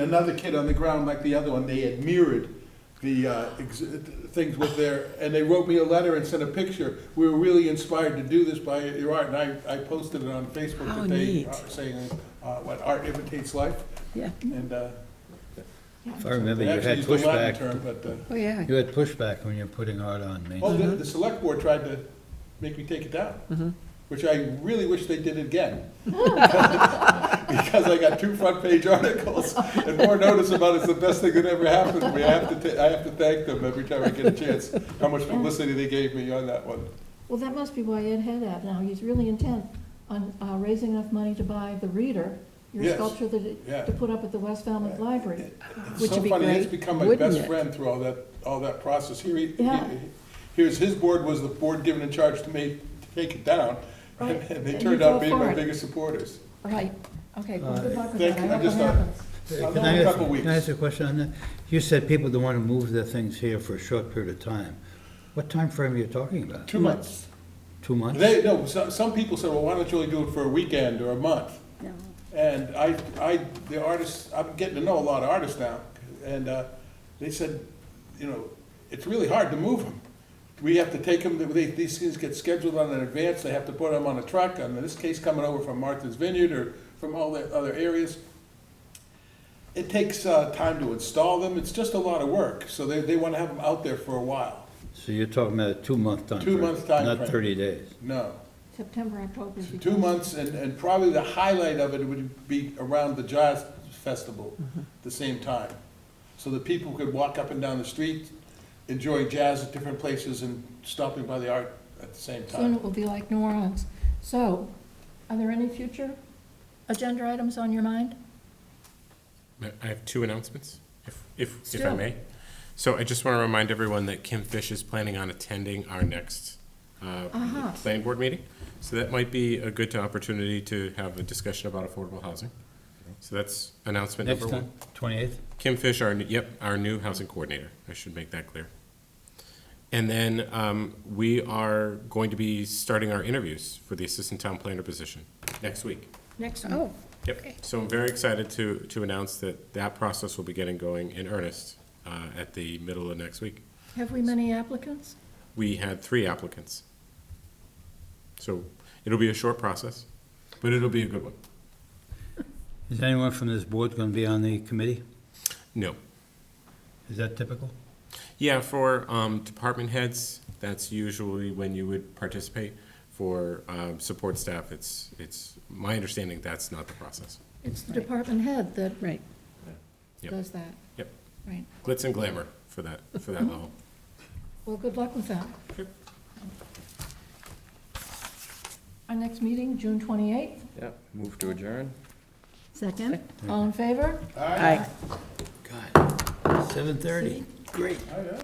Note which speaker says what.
Speaker 1: Another kid on the ground like the other one, they had mirrored the uh, ex- things with their, and they wrote me a letter and sent a picture. We were really inspired to do this by your art, and I, I posted it on Facebook
Speaker 2: How
Speaker 1: today,
Speaker 2: neat.
Speaker 1: uh, saying, uh, what, art imitates life,
Speaker 2: Yeah,
Speaker 1: and uh,
Speaker 3: If I remember,
Speaker 1: they
Speaker 3: you
Speaker 1: actually
Speaker 3: had
Speaker 1: used the Latin
Speaker 3: pushback,
Speaker 1: term, but, uh,
Speaker 2: oh, yeah.
Speaker 3: you had pushback when you were putting art on me.
Speaker 1: oh, the, the select board tried to make me take it down, which I really wish they did again. Because I got two front-page articles and more notice about it's the best thing that ever happened to me. I have to, ta- I have to thank them every time I get a chance, how much publicity they gave me on that one.
Speaker 4: Well, that must be why Ed had that now. He's really intent on uh, raising enough money to buy the reader, your
Speaker 1: Yes.
Speaker 4: sculpture
Speaker 1: Yeah.
Speaker 4: that, to put up at the West Falmouth Library.
Speaker 1: It's
Speaker 2: Which
Speaker 1: so
Speaker 2: would be
Speaker 1: funny, he's
Speaker 2: great,
Speaker 1: become my
Speaker 2: wouldn't
Speaker 1: best
Speaker 2: it?
Speaker 1: friend through all that, all that process. Here he, he-
Speaker 4: Yeah.
Speaker 1: here's his board was the board given in charge to me, to take it down. And
Speaker 4: Right.
Speaker 1: and they
Speaker 4: And
Speaker 1: turned
Speaker 4: you
Speaker 1: out
Speaker 4: go
Speaker 1: being
Speaker 4: for
Speaker 1: my
Speaker 4: it.
Speaker 1: biggest supporters.
Speaker 4: Right, okay, well, good luck with
Speaker 1: Thank
Speaker 4: that. I
Speaker 1: you. I
Speaker 4: hope it
Speaker 1: just thought-
Speaker 4: happens.
Speaker 1: I'll
Speaker 3: Can
Speaker 1: go
Speaker 3: I
Speaker 1: in a
Speaker 3: ask-
Speaker 1: couple weeks.
Speaker 3: Can I ask a question on that? You said people don't want to move their things here for a short period of time. What time frame are you talking about?
Speaker 1: Two months.
Speaker 3: Two months?
Speaker 1: They, no, some, some people said, well, why don't you only do it for a weekend or a month? And I, I, the artists, I'm getting to know a lot of artists now, and, uh, they said, you know, it's really hard to move them. We have to take them, they, these things get scheduled on in advance, they have to put them on a truck, and in this case, coming over from Martha's Vineyard or from all the other areas. It takes, uh, time to install them, it's just a lot of work, so they, they wanna have them out there for a while,
Speaker 3: So you're talking about a two-month time frame?
Speaker 1: Two-month time
Speaker 3: Not
Speaker 1: frame.
Speaker 3: 30 days?
Speaker 1: no.
Speaker 4: September, October.
Speaker 1: So
Speaker 4: if you
Speaker 1: Two
Speaker 4: can.
Speaker 1: months, and, and probably the highlight of it would be around the jazz festival, the same time. So that people could walk up and down the street, enjoy jazz at different places and stopping by the art at the same
Speaker 4: Soon
Speaker 1: time.
Speaker 4: it will be like New Orleans. So, are there any future agenda items on your mind?
Speaker 5: I have two announcements, if, if, if I
Speaker 4: Still.
Speaker 5: may. So I just want to remind everyone that Kim Fish is planning on attending our next uh,
Speaker 4: Uh-huh.
Speaker 5: planning board meeting. So that might be a good opportunity to have a discussion about affordable housing. So that's announcement
Speaker 3: Next
Speaker 5: number
Speaker 3: time,
Speaker 5: one.
Speaker 3: 28th?
Speaker 5: Kim Fish, our, new- yep, our new housing coordinator. I should make that clear. And then um, we are going to be starting our interviews for the assistant town planner position next week.
Speaker 4: Next
Speaker 2: Oh,
Speaker 4: one.
Speaker 5: Yep, so I'm very excited to, to announce that that process will be getting going in earnest uh, at the middle of next week.
Speaker 4: Have we many applicants?
Speaker 5: We had three applicants. So it'll be a short process, but it'll be a good one.
Speaker 3: Is anyone from this board going to be on the committee?
Speaker 5: No.
Speaker 3: Is that typical?
Speaker 5: Yeah, for um, department heads, that's usually when you would participate. For um, support staff, it's, it's my understanding that's not the process.
Speaker 4: It's the
Speaker 2: Right.
Speaker 4: department head that
Speaker 2: right.
Speaker 5: Yep.
Speaker 4: does that,
Speaker 5: Yep,
Speaker 4: right?
Speaker 5: glitz and glamour for that, for that level.
Speaker 4: Well, good luck with that.
Speaker 5: Yep.
Speaker 4: Our next meeting, June 28th.
Speaker 6: Yeah, move to adjourn.
Speaker 4: Second. All in favor?
Speaker 2: Aye.
Speaker 3: God, 7:30.
Speaker 4: See?
Speaker 3: Great.
Speaker 1: Oh, yeah?